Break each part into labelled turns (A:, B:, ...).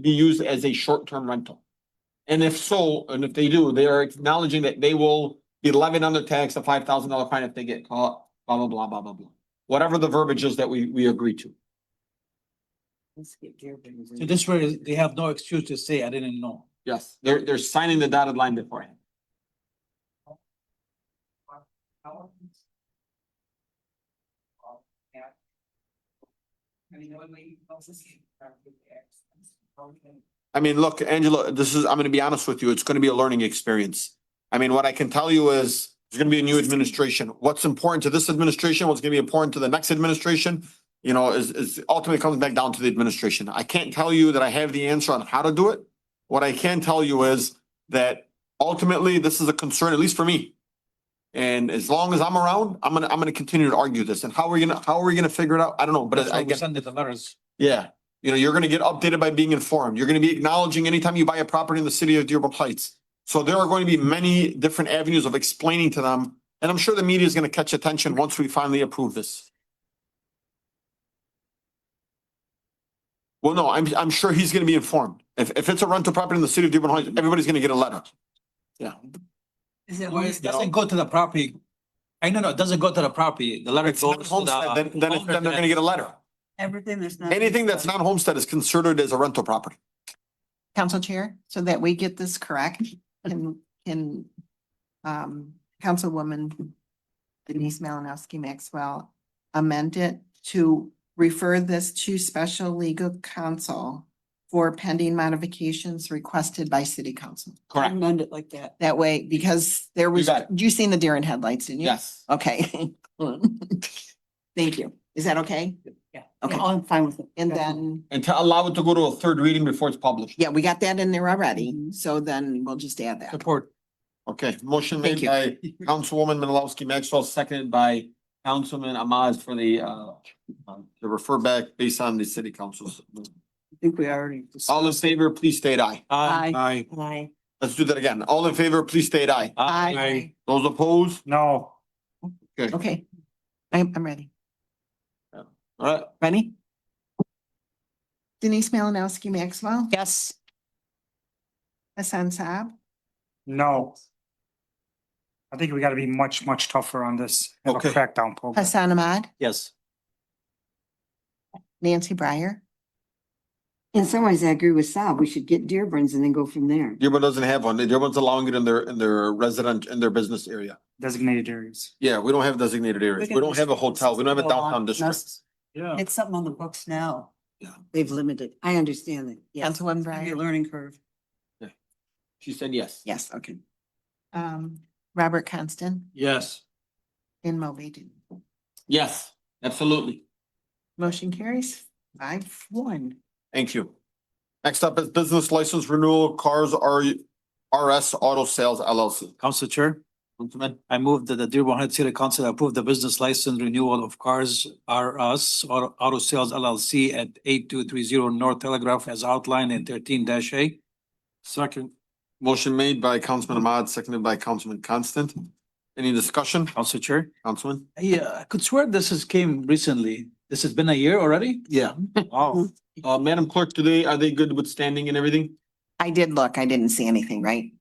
A: be used as a short-term rental? And if so, and if they do, they are acknowledging that they will be levied on their tax a five thousand dollar fine if they get caught, blah, blah, blah, blah, blah, blah. Whatever the verbiage is that we, we agree to.
B: So this way, they have no excuse to say, I didn't know.
A: Yes, they're, they're signing the dotted line beforehand. I mean, look, Angela, this is, I'm gonna be honest with you, it's gonna be a learning experience. I mean, what I can tell you is, there's gonna be a new administration. What's important to this administration, what's gonna be important to the next administration, you know, is, is ultimately comes back down to the administration. I can't tell you that I have the answer on how to do it. What I can tell you is that ultimately, this is a concern, at least for me. And as long as I'm around, I'm gonna, I'm gonna continue to argue this. And how are we gonna, how are we gonna figure it out? I don't know, but
B: That's
A: I
B: why we
A: guess.
B: send it the letters.
A: Yeah, you know, you're gonna get updated by being informed. You're gonna be acknowledging anytime you buy a property in the city of Dearborn Heights. So there are going to be many different avenues of explaining to them, and I'm sure the media is gonna catch attention once we finally approve this. Well, no, I'm, I'm sure he's gonna be informed. If, if it's a rental property in the city of Dearborn Heights, everybody's gonna get a letter. Yeah,
B: Well, it doesn't go to the property. I know, no, it doesn't go to the property. The letter
A: it's not
B: goes to
A: homestead,
B: the.
A: then, then, it's- then they're gonna get a letter.
C: Everything that's not.
A: Anything that's not homestead is considered as a rental property.
D: Council Chair, so that we get this correct, can, can um, Councilwoman Denise Malinowski Maxwell amend it to refer this to special legal counsel for pending modifications requested by city council.
A: Correct,
C: Amend it like that.
D: That way, because there was,
A: got
D: you seen the deer in headlights, didn't you?
A: yes.
D: Okay. Thank you. Is that okay?
C: Yeah.
D: Okay.
C: I'm fine with it.
D: And then,
A: And to allow it to go to a third reading before it's published.
D: yeah, we got that in there already,
A: Mm-hmm.
C: Mhm.
D: so then we'll just add that.
B: Support.
A: Okay, motion
D: Thank
A: made by Councilwoman Menalowski Maxwell, seconded by Councilman Ahmad for the uh. um, To refer back based on the city council's.
C: I think we already. discussed-
A: All in favor, please state aye.
B: Aye.
A: Aye.
C: Aye.
A: Let's do that again. All in favor, please state aye.
D: Aye.
A: Those opposed?
B: No.
D: Okay, I'm, I'm ready.
A: Alright,
D: Ready? Denise Malinowski Maxwell,
C: Yes.
D: Hassan Saab,
E: No. I think we gotta be much, much tougher on this, have a
A: Okay.
E: crackdown program.
D: Hassan Ahmad,
B: Yes.
D: Nancy Breyer.
F: In some ways, I agree with Saab. We should get Dearborn's and then go from there.
A: Dearborn doesn't have one. Dearborn's allowing it in their, in their resident, in their business area.
E: designated areas.
A: Yeah, we don't have designated areas. We don't have a hotel. We don't have a downtown district.
B: Yeah.
C: It's something on the books now.
F: They've limited. I understand that. Yes.
D: Councilwoman
C: Your
D: Breyer.
C: learning curve.
A: She said yes.
D: Yes, okay. Um, Robert Constant
B: Yes.
D: in Moby.
A: Yes, absolutely.
D: Motion carries five one.
A: Thank you. Next up is business license renewal, Cars R, RS Auto Sales LLC.
B: Council Chair,
A: Councilman,
B: I move that the Dearborn Heights City Council approve the business license renewal of Cars R Us Auto Auto Sales LLC at eight two three zero North Telegraph as outlined in thirteen dash A. Second.
A: motion made by Councilman Ahmad, seconded by Councilman Constant. Any discussion,
B: Council Chair.
A: Councilman?
B: Yeah, uh, I could swear this has came recently. This has been a year already?
A: Yeah.
B: Oh,
A: Uh, Madam Clerk, today, are they good with standing and everything?
D: I did look, I didn't see anything, right?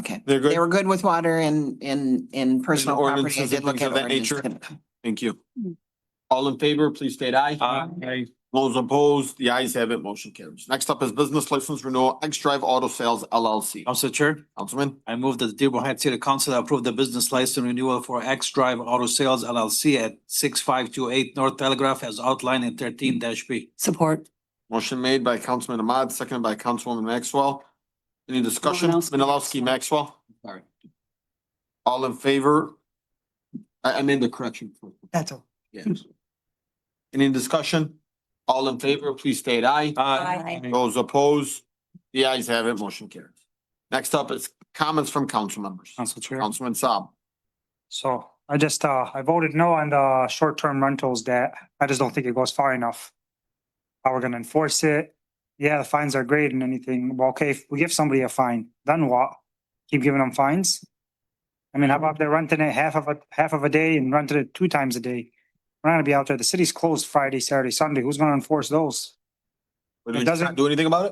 D: Okay,
A: They're
D: they
A: good?
D: were good with water and, and, and personal property. I
A: ordinances and
D: did look
A: things
D: at
A: of that nature?
D: ordinance.
A: Thank you. All in favor, please state aye.
B: aye.
A: Those opposed, the ayes have it, motion carries. Next up is business license renewal, X Drive Auto Sales LLC.
B: Council Chair,
A: Councilman?
B: I move that the Dearborn Heights City Council approve the business license renewal for X Drive Auto Sales LLC at six five two eight North Telegraph as outlined in thirteen dash B.
C: Support.
A: Motion made by Councilman Ahmad, seconded by Councilwoman Maxwell. Any discussion?
C: Malinowski.
A: Menalowski, Maxwell? Sorry. All in favor? I, I made the correction.
C: That's all.
A: Yes. Any discussion? All in favor, please state aye.
C: Aye.
A: Those opposed? The ayes have it, motion carries. Next up is comments from council members.
E: Council Chair.
A: Councilman Saab.
E: So I just, uh, I voted no on the short-term rentals that I just don't think it goes far enough. How we're gonna enforce it? Yeah, the fines are great and anything. Well, okay, if we give somebody a fine, then what? Keep giving them fines? I mean, how about they're renting it half of a, half of a day and renting it two times a day? We're not gonna be out there. The city's closed Friday, Saturday, Sunday. Who's gonna enforce those?
A: Would you
E: It doesn't-
A: not do anything about it?